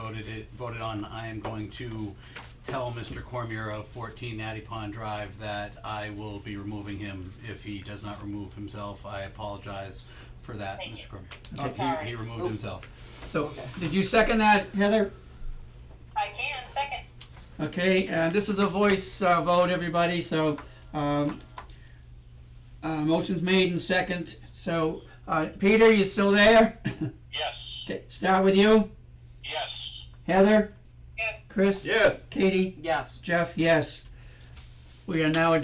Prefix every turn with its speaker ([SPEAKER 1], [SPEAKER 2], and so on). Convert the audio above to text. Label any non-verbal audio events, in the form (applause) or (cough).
[SPEAKER 1] voted it, voted on, I am going to tell Mr. Cormier of fourteen Natty Pond Drive that I will be removing him if he does not remove himself. I apologize for that,
[SPEAKER 2] Thank you.
[SPEAKER 1] Mr. Cormier. Oh, he, he removed himself.
[SPEAKER 3] So, did you second that, Heather?
[SPEAKER 2] I can, second.
[SPEAKER 3] Okay, uh, this is a voice, uh, vote, everybody, so, um, uh, motion's made and second, so, uh, Peter, you still there? (coughs)
[SPEAKER 4] Yes,
[SPEAKER 3] Okay, start with you,
[SPEAKER 4] yes,
[SPEAKER 3] Heather,
[SPEAKER 2] Yes.
[SPEAKER 3] Chris,
[SPEAKER 5] Yes.
[SPEAKER 3] Katie,
[SPEAKER 6] Yes.
[SPEAKER 3] Jeff, yes. We are now adjourned